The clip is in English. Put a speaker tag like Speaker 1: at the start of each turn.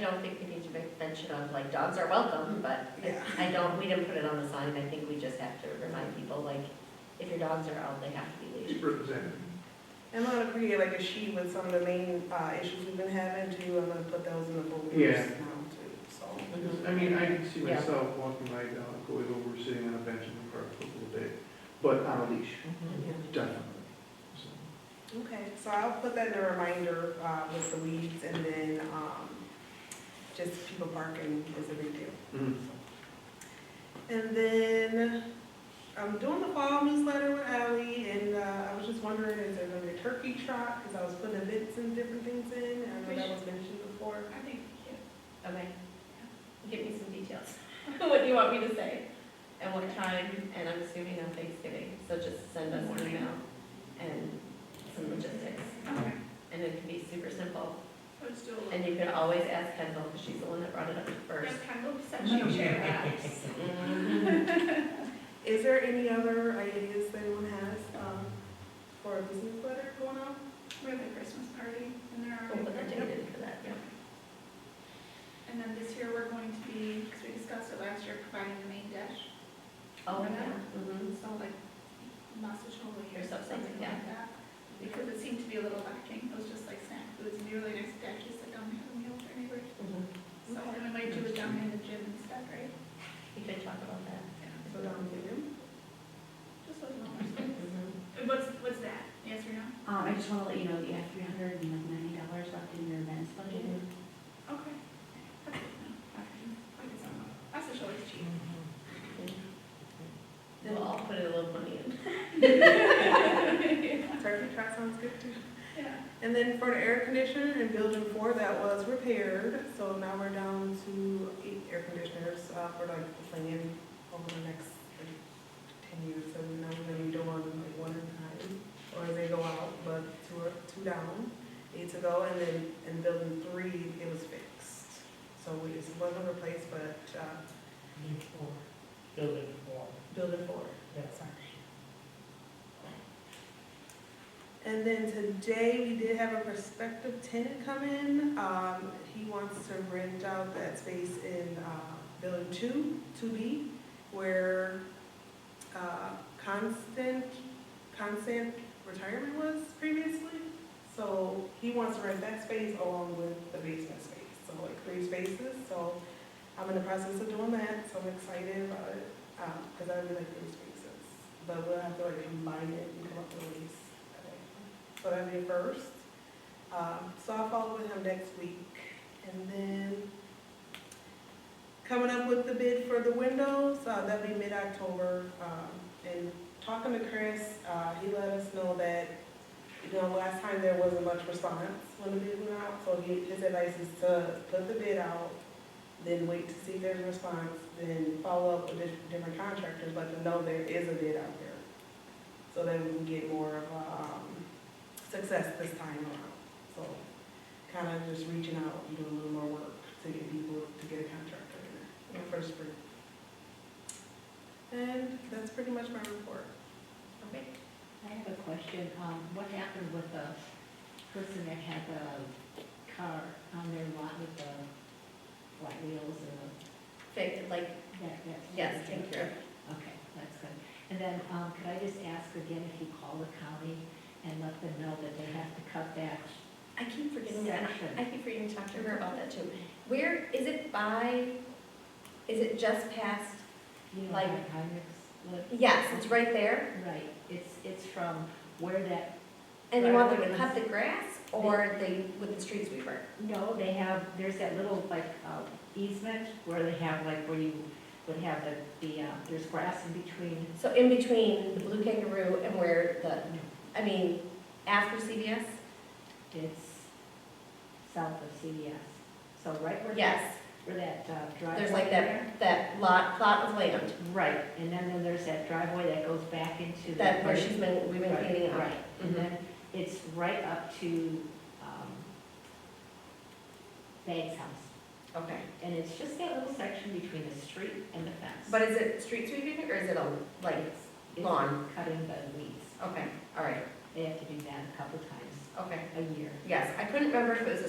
Speaker 1: don't think we need to make mention of, like, dogs are welcome, but I-
Speaker 2: Yeah.
Speaker 1: I don't, we didn't put it on the sign, I think we just have to remind people, like, if your dogs are out, they have to be leashed.
Speaker 3: Be represented.
Speaker 2: I'm gonna create like a sheet with some of the main, uh, issues we've been having too, I'm gonna put those in the
Speaker 3: Yeah.
Speaker 2: folders now too, so.
Speaker 3: Because, I mean, I can see
Speaker 1: Yeah.
Speaker 3: myself walking my dog, going over, sitting on a bench in the park for a little bit, but on a leash,
Speaker 2: Mm-hmm.
Speaker 3: definitely. So,
Speaker 2: Okay, so I'll put that in a reminder, uh, with the weeds and then, um, just people barking is a big deal.
Speaker 3: mhm.
Speaker 2: And then I'm doing the fall newsletter with Ally, and uh, I was just wondering, is there gonna be a turkey trot? Because I was putting events and different things in, and I know that was mentioned before.
Speaker 4: I think, yeah,
Speaker 1: Okay,
Speaker 4: give me some details. What do you want me to say?
Speaker 1: and what time, and I'm assuming on Thanksgiving, so just send us an email and some logistics.
Speaker 4: Okay,
Speaker 1: And it can be super simple,
Speaker 4: so it's still.
Speaker 1: and you can always ask Kendall, because she's the one that brought it up first.
Speaker 4: Yes, kind of such a share that.
Speaker 1: Mhm.
Speaker 2: Is there any other ideas that anyone has um, for a business letter going on?
Speaker 4: We have the Christmas party and there
Speaker 1: We'll put the
Speaker 4: are.
Speaker 1: date in for that, yeah.
Speaker 4: And then this year, we're going to be, because we discussed it last year, providing the main dish.
Speaker 1: Oh,
Speaker 4: Yeah.
Speaker 1: yeah, mhm.
Speaker 4: Mm-hmm. So like sausage roll
Speaker 1: Or
Speaker 4: or
Speaker 1: something,
Speaker 4: something
Speaker 1: yeah.
Speaker 4: like that. Because it seemed to be a little lacking. It was just like snack foods and really nice to actually sit down and have a meal for anybody.
Speaker 1: Mhm.
Speaker 4: So and we might do it down in the gym and stuff, right?
Speaker 1: We could talk about that.
Speaker 2: So down to you.
Speaker 4: Just a little more space.
Speaker 1: Mhm.
Speaker 4: What's, what's that? Yes or no?
Speaker 5: Mm-hmm. Um, I just wanna let you know that you have three hundred and ninety dollars left in your events budget.
Speaker 1: Mm-hmm.
Speaker 4: Okay. That's it, no. Like it's on. Sausage roll is cheap.
Speaker 1: We'll all put a little money in.
Speaker 2: Turkey trot sounds good too.
Speaker 4: Yeah.
Speaker 2: And then for the air conditioner in building four, that was repaired, so now we're down to eight air conditioners uh, for like the plan over the next like, ten years, so now we're gonna be doing like one at a time, or they go out, but two are, two down, eight to go, and then in building three, it was fixed. So we just wasn't replaced, but uh,
Speaker 6: Before, building four,
Speaker 2: building four.
Speaker 6: yes.
Speaker 2: And then today, we did have a prospective tenant come in. Um, he wants to rent out that space in, uh, building two, two B, where, uh, Constant, Constant Retirement was previously. So he wants to rent that space along with the basement space, so like three spaces, so I'm in the process of doing that, so I'm excited about it. Um, cause I really like three spaces, but we'll have to like combine it and come up with a lease. So that'd be a first. Um, so I'll follow with him next week. And then coming up with the bid for the windows, uh, that'll be mid-October. Um, and talking to Chris, uh, he let us know that, you know, last time there wasn't much response when the bid went out. So he, his advice is to put the bid out, then wait to see if there's a response, then follow up with di- different contractors, let them know there is a bid out there so that we can get more of um, success this time around. So kind of just reaching out and doing a little more work to get people, to get a contractor in there for the spring. And that's pretty much my report.
Speaker 1: Okay.
Speaker 5: I have a question, um, what happened with the person that had the car on their lot with the white wheels and
Speaker 1: Fake, like,
Speaker 5: the, that, that?
Speaker 1: yes, take care
Speaker 5: Okay, that's good. And then, um, could I just ask again if you call the county and let them know that they have to cut that
Speaker 1: I keep forgetting that,
Speaker 5: section?
Speaker 1: I keep forgetting to talk to her about that too. Where, is it by, is it just past,
Speaker 5: You know,
Speaker 1: like-
Speaker 5: where Heinrich's live?
Speaker 1: yes, it's right there?
Speaker 5: Right, it's, it's from where that
Speaker 1: And you want them to cut the grass or they, with the street sweeper?
Speaker 5: No, they have, there's that little like uh, easement where they have like where you would have the, the, uh, there's grass in between.
Speaker 1: So in between the Blue Kangaroo and where the,
Speaker 5: No,
Speaker 1: I mean, after CVS?
Speaker 5: It's south of CVS. So right where that,
Speaker 1: Yes,
Speaker 5: where that uh, driveway.
Speaker 1: there's like that, that lot, plot of land,
Speaker 5: Right, and then then there's that driveway that goes back into. the-
Speaker 1: that where she's been, we've been Mm-hmm.
Speaker 5: Right,
Speaker 1: cleaning up.
Speaker 5: Right, and then it's right up to um, Bag's house.
Speaker 1: Mm-hmm. Okay.
Speaker 5: And it's just that little section between the street and the fence.
Speaker 1: But is it street sweeping or is it a, like,
Speaker 5: It's
Speaker 1: lawn.
Speaker 5: Cutting the weeds.
Speaker 1: okay, all right,
Speaker 5: They have to do that a couple times
Speaker 1: okay.
Speaker 5: a year.
Speaker 1: Yes, I couldn't remember if it was a